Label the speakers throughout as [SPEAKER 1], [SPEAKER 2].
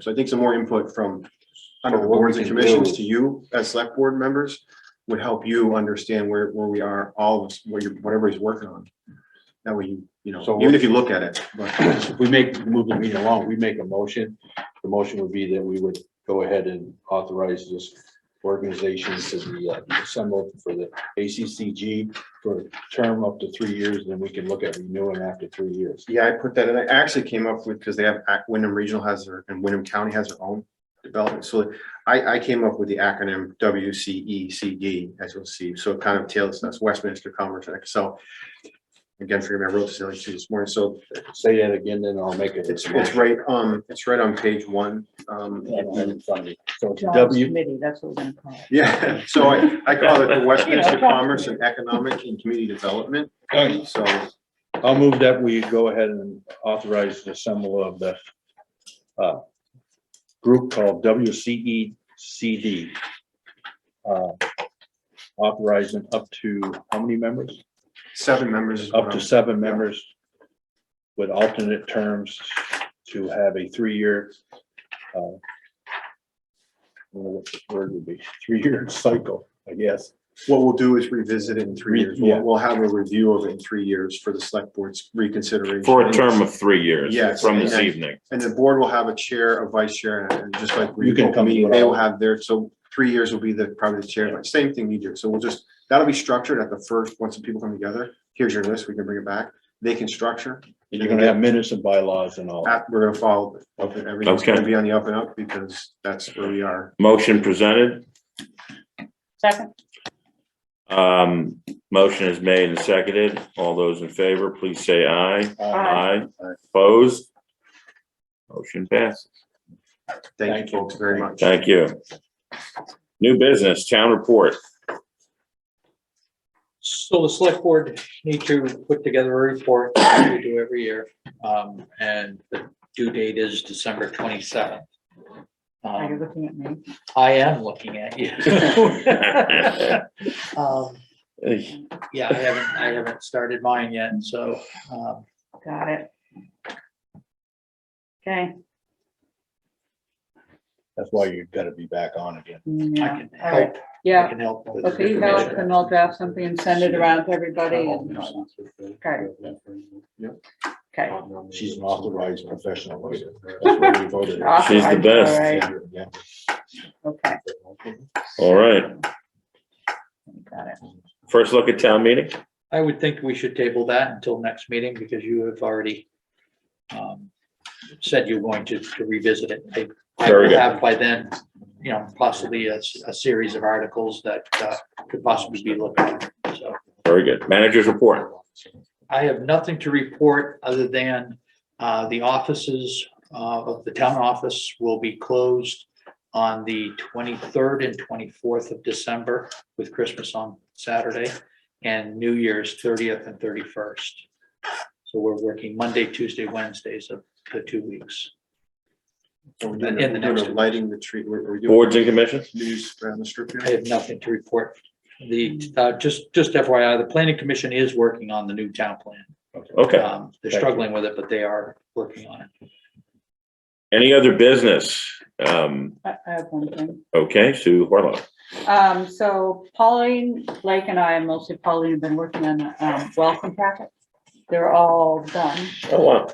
[SPEAKER 1] So I think some more input from kind
[SPEAKER 2] What
[SPEAKER 1] of
[SPEAKER 2] the board
[SPEAKER 1] boards and
[SPEAKER 2] can
[SPEAKER 1] commissions
[SPEAKER 2] do.
[SPEAKER 1] to you as select board members would help you understand where, where we are, all of us, where you, whatever he's working on. That way, you, you know,
[SPEAKER 2] So-
[SPEAKER 1] even if you look at it, but
[SPEAKER 2] If we make, move the meeting along, we make a motion, the motion would be that we would go ahead and authorize this organization to be uh, assembled for the ACCG for a term up to three years, then we can look at renewing after three years.
[SPEAKER 1] yeah, I put that, and I actually came up with, because they have, Ac- Wyndham Regional has their, and Wyndham County has their own development. So I, I came up with the acronym W C E C D, as you'll see. So it kind of tails, that's Westminster Commerce Act. So again, forgive me, I wrote this earlier too this morning. So
[SPEAKER 2] Say that again, then I'll make it.
[SPEAKER 1] It's, it's right, um, it's right on page one, um,
[SPEAKER 2] I don't have it in front of me. So it's
[SPEAKER 3] Jobs
[SPEAKER 2] W,
[SPEAKER 3] committee, that's what we're gonna call it.
[SPEAKER 1] yeah, so I, I call it the Westminster Commerce and Economic and Community Development, so,
[SPEAKER 2] I'll move that we go ahead and authorize the assemble of the uh, group called WCECD. uh, Authorizing up to, how many members?
[SPEAKER 1] seven members. is what
[SPEAKER 2] Up
[SPEAKER 1] I'm-
[SPEAKER 2] to seven members with alternate terms to have a three-year uh, I don't know what the word would be, three-year cycle, I guess.
[SPEAKER 1] What we'll do is revisit it in three
[SPEAKER 2] Re-
[SPEAKER 1] years, we'll,
[SPEAKER 2] yeah.
[SPEAKER 1] we'll have a review of it in three years for the select board's reconsideration.
[SPEAKER 4] For a term of three years
[SPEAKER 1] Yes,
[SPEAKER 4] from this
[SPEAKER 1] and-
[SPEAKER 4] evening.
[SPEAKER 1] And the board will have a chair, a vice chair, and just like. we
[SPEAKER 2] You can come to it
[SPEAKER 1] They
[SPEAKER 2] all.
[SPEAKER 1] will have their, so three years will be the, probably the chair, but same thing you do, so we'll just, that'll be structured at the first, once the people come together, here's your list, we can bring it back, they can structure,
[SPEAKER 2] You're gonna have minutes and bylaws and all.
[SPEAKER 1] app- we're gonna follow, it. everything's
[SPEAKER 4] Okay.
[SPEAKER 1] gonna be on the up and up because that's where we are.
[SPEAKER 4] Motion presented,
[SPEAKER 3] Second,
[SPEAKER 4] um, motion is made and seconded. All those in favor, please say aye.
[SPEAKER 2] Uh,
[SPEAKER 4] Aye.
[SPEAKER 3] Aye.
[SPEAKER 4] Opposed? Motion passes.
[SPEAKER 1] Thank
[SPEAKER 2] Thank
[SPEAKER 1] you
[SPEAKER 2] you.
[SPEAKER 1] folks very much.
[SPEAKER 4] Thank you. New business, town report.
[SPEAKER 5] So the select board need to put together a report as we do every year. Um, and the due date is December twenty-seventh.
[SPEAKER 3] are you
[SPEAKER 5] Um,
[SPEAKER 3] looking at me?
[SPEAKER 5] I am looking at you. Um, yeah, I haven't, I haven't started mine yet, so, um,
[SPEAKER 3] Got it. Okay.
[SPEAKER 2] That's why you've gotta be back on again.
[SPEAKER 5] I
[SPEAKER 3] yeah,
[SPEAKER 5] can
[SPEAKER 3] all right,
[SPEAKER 5] help. I
[SPEAKER 3] Yeah,
[SPEAKER 5] can help. with
[SPEAKER 3] okay, you
[SPEAKER 5] information.
[SPEAKER 3] help and I'll draft something and send it around to everybody and, okay, okay.
[SPEAKER 2] She's an authorized professional lawyer. That's what we voted.
[SPEAKER 4] She's the best.
[SPEAKER 3] Alright,
[SPEAKER 2] Yeah.
[SPEAKER 3] Okay,
[SPEAKER 4] All right,
[SPEAKER 3] got it.
[SPEAKER 4] first look at town meeting.
[SPEAKER 5] I would think we should table that until next meeting because you have already um, said you're going to to revisit it. I- I
[SPEAKER 4] Very
[SPEAKER 5] will
[SPEAKER 4] good.
[SPEAKER 5] have by then, you know, possibly a, s- a series of articles that uh, could possibly be looked at. So
[SPEAKER 4] Very good. Managers report.
[SPEAKER 5] I have nothing to report other than uh, the offices uh, of the town office will be closed on the twenty-third and twenty-fourth of December with Christmas on Saturday and New Year's thirtieth and thirty-first. So we're working Monday, Tuesday, Wednesdays of the two weeks.
[SPEAKER 1] We're
[SPEAKER 5] And
[SPEAKER 1] doing-
[SPEAKER 5] the
[SPEAKER 1] we're
[SPEAKER 5] next
[SPEAKER 1] doing Lighting the tree, we're, we're doing.
[SPEAKER 4] Boards and commissions?
[SPEAKER 1] News around the strip
[SPEAKER 5] I
[SPEAKER 1] here.
[SPEAKER 5] have nothing to report. The, uh, just, just FYI, the planning commission is working on the new town plan.
[SPEAKER 4] Okay.
[SPEAKER 5] Um,
[SPEAKER 2] Thank
[SPEAKER 5] They're
[SPEAKER 2] you.
[SPEAKER 5] struggling with it, but they are working on it.
[SPEAKER 4] Any other business? Um,
[SPEAKER 3] I I have one thing.
[SPEAKER 4] okay, Sue Harlow.
[SPEAKER 3] Um, so Pauline, Blake and I, mostly Pauline, have been working on the um, welcome packet. They're all done.
[SPEAKER 4] Oh, wow.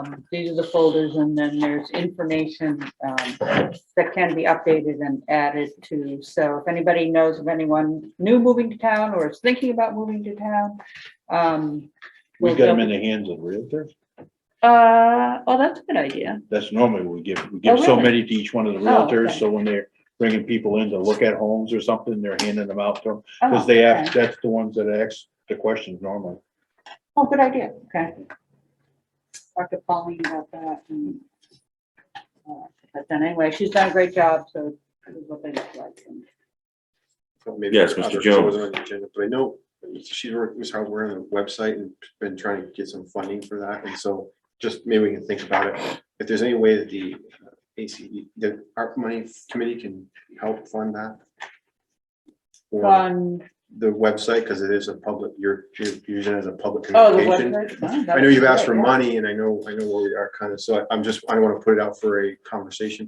[SPEAKER 3] Um, these are the folders and then there's information, um, that can be updated and added to. So if anybody knows of anyone new moving to town or is thinking about moving to town, um.
[SPEAKER 2] We
[SPEAKER 3] we'll
[SPEAKER 2] got them in
[SPEAKER 3] jump-
[SPEAKER 2] the hands of realtors.
[SPEAKER 3] Uh, oh, that's a good idea.
[SPEAKER 2] That's normally we give, we give
[SPEAKER 3] Oh,
[SPEAKER 2] so
[SPEAKER 3] really?
[SPEAKER 2] many to each one of the
[SPEAKER 3] Oh, okay.
[SPEAKER 2] realtors. So when they're bringing people in to look at homes or something, they're handing them out to them. Cause
[SPEAKER 3] Oh,
[SPEAKER 2] they
[SPEAKER 3] okay.
[SPEAKER 2] have, that's the ones that ask the questions normally.
[SPEAKER 3] Oh, good idea, okay. Talk to Pauline about that and. uh, But then anyway, she's done a great job, so. this is what they look like. And
[SPEAKER 1] So maybe
[SPEAKER 4] Yes,
[SPEAKER 1] for
[SPEAKER 4] Mr.
[SPEAKER 1] others, it
[SPEAKER 4] Jones.
[SPEAKER 1] wasn't on the agenda, But I know she's, work- Ms. Howard, we're on the website and been trying to get some funding for that. And so just maybe we can think about it. If there's any way that the uh, ACE, the ARP money committee can help fund that. Or
[SPEAKER 3] Fun.
[SPEAKER 1] the website, because it is a public, you're, you're using it as a public
[SPEAKER 3] Oh, the
[SPEAKER 1] communication.
[SPEAKER 3] website.
[SPEAKER 1] I know you've asked for money and I know, I know where we are kind of, so I- I'm just, I want to put it out for a conversation